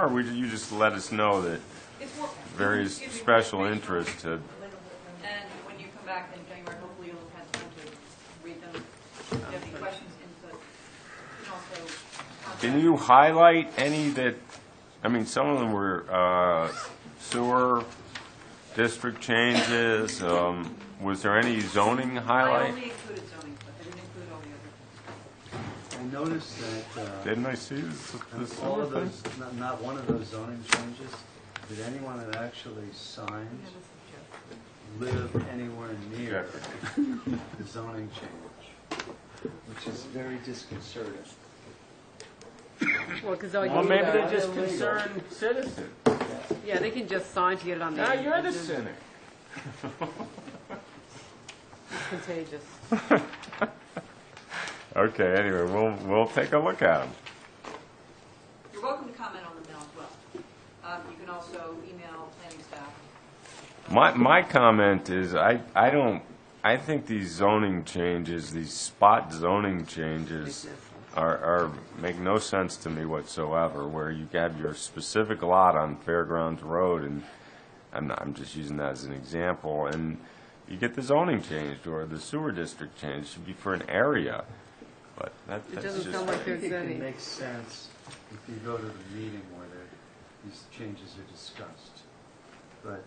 or would you just let us know that If we're- various excuse me, we're special reading them, interests had, And when you come back in January, hopefully you'll have had time to read them. If you have any questions, input. You can also contact- can you highlight any that, I mean, some of them were uh, sewer district changes, um, was there any zoning I highlight? only included zoning, but I didn't include all the other. I noticed that Didn't I see this, uh, this all sewer of thing? those, not- not one of those zoning changes, did anyone that actually signed live anywhere near the zoning change, which is very disconcerting. Well, because all you Well, maybe do- they're just concerned citizens. Yeah, they can just sign to get it on the. Now, you're the it's cynic. Ah. Contagious. Okay, anyway, we'll, we'll take a look at them. You're welcome to comment on them now as well. Um, You can also email planning staff. My, my comment is, I, I don't, I think these zoning changes, these spot zoning changes are, are, make no sense to me whatsoever, where you have your specific lot on Fairgrounds Road, and I'm not, I'm just using that as an example, and you get the zoning changed, or the sewer district changed, should be for an area, but that, It that's doesn't just, sound I like think there's it can any. make sense if you go to the meeting where they- these changes are discussed. But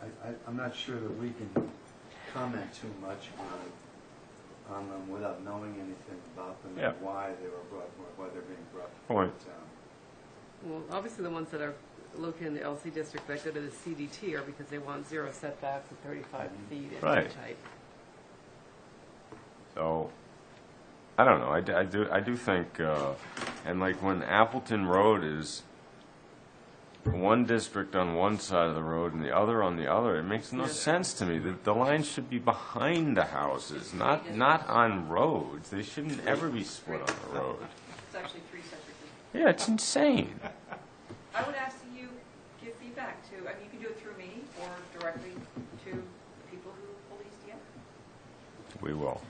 I, I, I'm not sure that we can comment too much on, on them without knowing anything about them Yeah. and why they were brought, why they're being brought Point. to town. Well, obviously the ones that are located in the LC district that go to the CDT are because they want zero setbacks and 35 feet and Mm-hmm. Right. that type. So, I don't know, I, d- I do, I do think, uh, and like when Appleton Road is one district on one side of the road and the other on the other, it makes no Yeah. sense to me. The, the lines should be behind the houses, not, District. not on roads. They shouldn't ever be split on the road. It's actually three separate districts. Yeah, it's insane. I would ask that you give feedback to, I mean, you can do it through me or directly to the people who police the area. We will.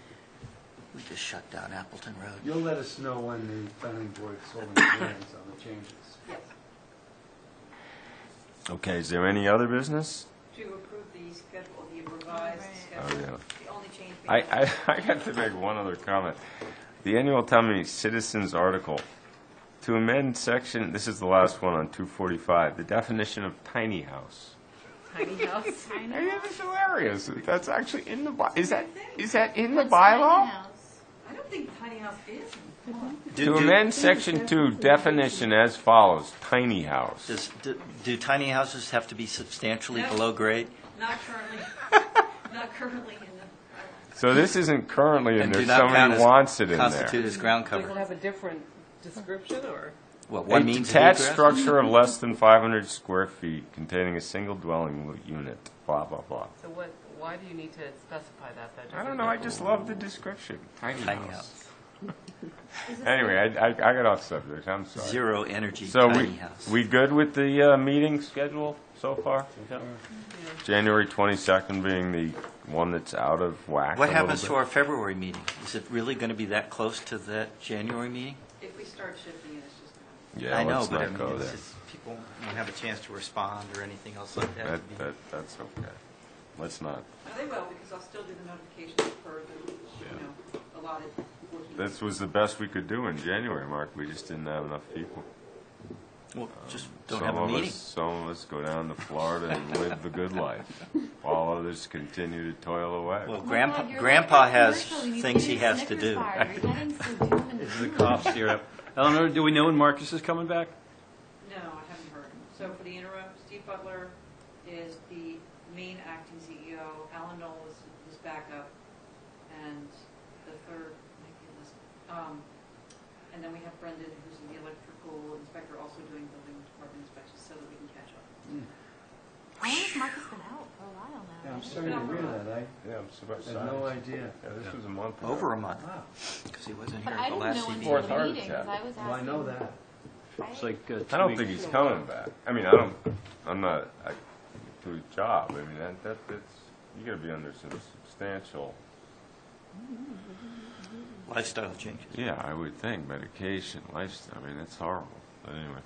We just shut down Appleton Road. You'll let us know when the planning board's holding hearings on the changes. Yes, Okay, is there any other business? to approve the schedule, the revised Oh, schedule. yeah. The only change being. I, I, I got to make one other comment. The annual town meeting citizens article, to amend section, this is the last one on 245, the definition of tiny house. Tiny house. I mean, that's hilarious. That's actually in the, by- is that, is that in the What's my bylaw? house? I don't think tiny house is. To amend section two, definition as follows, tiny house. Does, do- do tiny houses have to be substantially No. below grade? Not currently, not currently in the, uh, So this isn't currently in And there, do not count somebody as- wants it in Constitute there. as ground Does it cover? have a different description or? What, A one means of detached egress? structure of less than 500 square feet containing a single dwelling unit, blah, blah, blah. So what, why do you need to specify that though? I don't know. I just love the description. Tiny, Tiny house. house. Anyway, I, I, I got off subject. I'm sorry. Zero energy So we tiny house. we good with the uh, meeting schedule so far? January 22nd being the one that's out of whack. What a happens to little our February meeting? Is it really going to be that close to that January meeting? if we start shifting it, it's just not. bit. Yeah, I know, let's but I not mean, go it's there. just, people won't have a chance to respond or anything else like that. That, that that's okay. Let's not. No, they will, because I'll still do the notifications per the, you know, allotted working. This was the best we could do in January, Mark. We just didn't have enough people. Well, just don't some have a of meeting. us, some of us go down to Florida and live the good life, while others continue to toil away. Well, Oh my grandpa, God, you're grandpa like a has commercial. You things did he a has to Snickers do. bar. You're getting so doom and Is the gloom. cops here? up? Eleanor, do we know when Marcus is coming back? No, I haven't heard. So for the interim, Steve Butler is the main acting CEO, Alan Knoll is his backup, and the third, might be Elizabeth. Um, and then we have Brendan, who's the electrical inspector, also doing building department inspections, so that we can catch up. How long has Marcus been out? For a while now. Yeah, I'm sorry to hear that, I yeah, I'm surprised. had no idea. Yeah, this was a month ago. Over a month, because he wasn't here But at I the didn't last know CBA. Fourth until the heart meeting, because attack. I was asking. Well, I know that. It's like uh, two I don't weeks. think he's coming back. I mean, I don't, I'm not, I, to his job, I mean, that, that, that's, you gotta be under some substantial. Lifestyle changes. Yeah, I would think, medication, lifestyle, I mean, that's horrible, but anyway.